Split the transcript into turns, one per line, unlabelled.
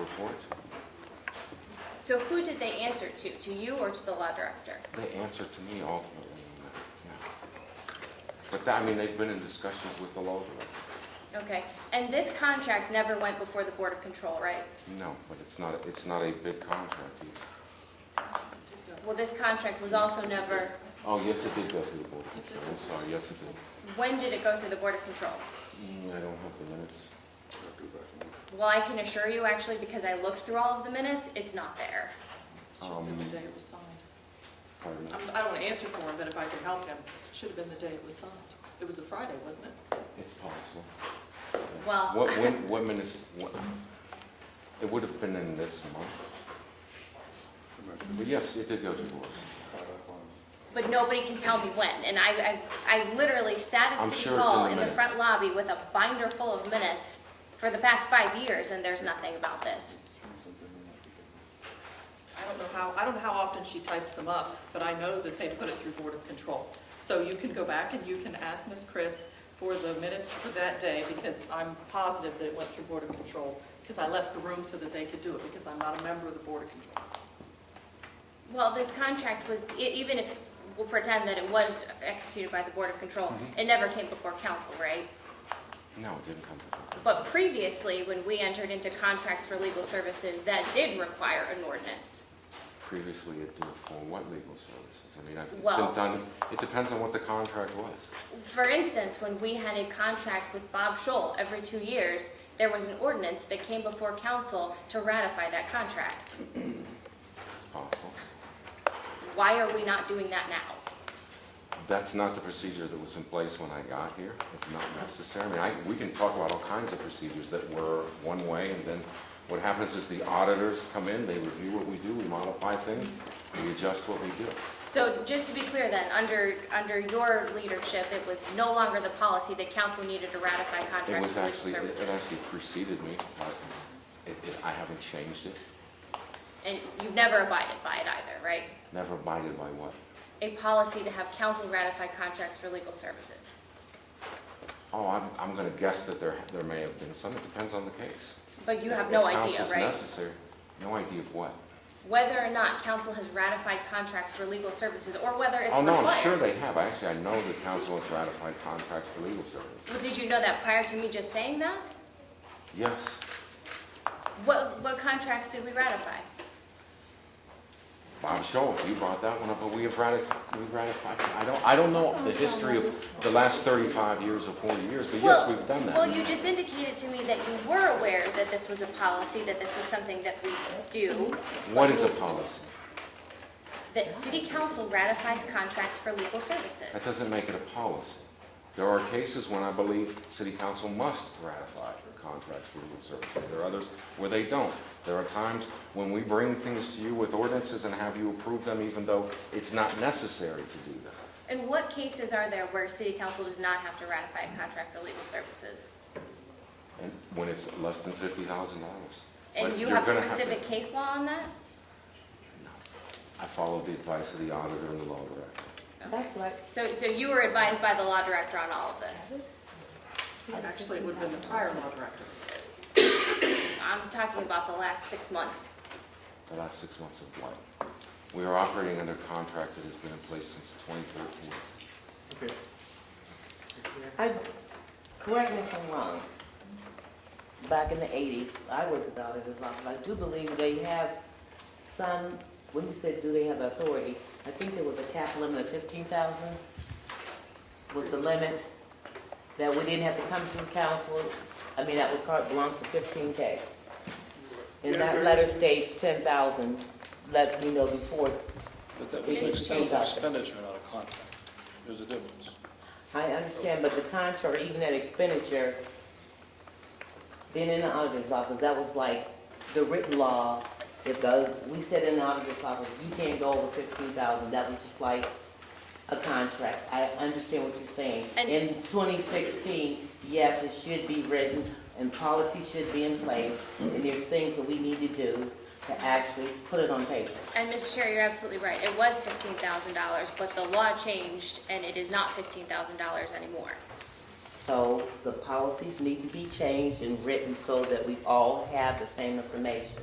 report.
So who did they answer to, to you or to the law director?
They answer to me ultimately, yeah. But, that- I mean, they've been in discussions with the law director.
Okay, and this contract never went before the Board of Control, right?
No, but it's not, it's not a big contract either.
Well, this contract was also never,
Oh, yes, it did go through the board of control, I'm sorry, yes, it did.
when did it go through the Board of Control?
Mm, I don't have the minutes.
Well, I can assure you actually, because I looked through all of the minutes, it's not there.
Should have been the day it was signed.
Pardon.
I'm- I don't want to answer for him, but if I could help him, should have been the day it was signed. It was a Friday, wasn't it?
It's possible.
Well-
What, when, what minutes, what, it would have been in this month. But yes, it did go to the board.
But nobody can tell me when, and I, I, I literally sat
I'm
at City
sure it's in
Hall
the
in the
minutes.
front lobby with a binder full of minutes for the past five years, and there's nothing about this.
I don't know how, I don't know how often she types them up, but I know that they put it through Board of Control. So you can go back and you can ask Ms. Chris for the minutes for that day, because I'm positive that it went through Board of Control, because I left the room so that they could do it, because I'm not a member of the Board of Control.
Well, this contract was, e- even if, we'll pretend that it was executed by the Board of Control,
Mm-hmm.
it never came before council, right?
No, it didn't come to
But previously, when we entered into contracts for legal services, that did require an ordinance.
that. Previously, it did for what legal services? I mean, I've- it's
Well-
been done, it depends on what the contract was.
For instance, when we had a contract with Bob Scholl every two years, there was an ordinance that came before council to ratify that contract.
It's possible.
Why are we not doing that now?
That's not the procedure that was in place when I got here. It's not necessary. I mean, I, we can talk about all kinds of procedures that were one way, and then what happens is the auditors come in, they review what we do, we modify things, we adjust what we do.
So just to be clear then, under, under your leadership, it was no longer the policy that council needed to ratify
It
contracts
was
for legal
actually, it
services.
it actually preceded me. I- It, it, I haven't changed it,
And you've never abided by it either, right?
never abided by what?
A policy to have council ratify contracts for legal services.
Oh, I'm, I'm gonna guess that there, there may have been some. It depends on the case.
But you have no
If
idea,
counsel's
right?
necessary, no idea of what?
Whether or not council has ratified contracts for legal services or whether it's
Oh,
required.
no, I'm sure they have. Actually, I know the council has ratified contracts for legal service.
Well, did you know that prior to me just saying that?
Yes.
What, what contracts did we ratify?
Bob Scholl, you brought that one up, but we have ratified, we ratified, I don't, I don't know the history of the last 35 years or 40 years, but yes,
Well-
we've done
Well, you
that.
just indicated to me that you were aware that this was a policy, that this was something that we do,
What is a policy?
that city council ratifies contracts for legal
That
services.
doesn't make it a policy. There are cases when I believe city council must ratify contracts for legal services. There are others where they don't. There are times when we bring things to you with ordinances and have you approve them even though it's not necessary to do that.
And what cases are there where city council does not have to ratify a contract for legal services?
And when it's less than $50,000. But
And you
you're
have
gonna to-
specific case law on that?
I follow the advice of the auditor and the law director.
That's like,
So, so you were advised by the law director on all of this?
Actually, it would have been the prior law director.
I'm talking about the last six months.
the last six months of what? We are operating under contract that has been in place since 2013.
Okay.
I, correct me if I'm wrong, back in the eighties, I worked with auditors office, I do believe they have some, when you said do they have authority, I think there was a cap limit of fifteen thousand was the limit that we didn't have to come to council, I mean, that was carte blanche for fifteen K. And that letter states ten thousand, let me know before,
But that was an
It's
expense-
changed.
expenditure, not a contract. There's a difference.
I understand, but the contract, even that expenditure, then in the auditor's office, that was like the written law. If the, we said in the auditor's office, you can't go over fifteen thousand, that was just like a contract. I understand what you're saying.
And-
In twenty sixteen, yes, it should be written and policy should be in place. And there's things that we need to do to actually put it on paper.
And Mr. Chair, you're absolutely right. It was fifteen thousand dollars, but the law changed and it is not fifteen thousand dollars anymore.
So the policies need to be changed and written so that we all have the same information.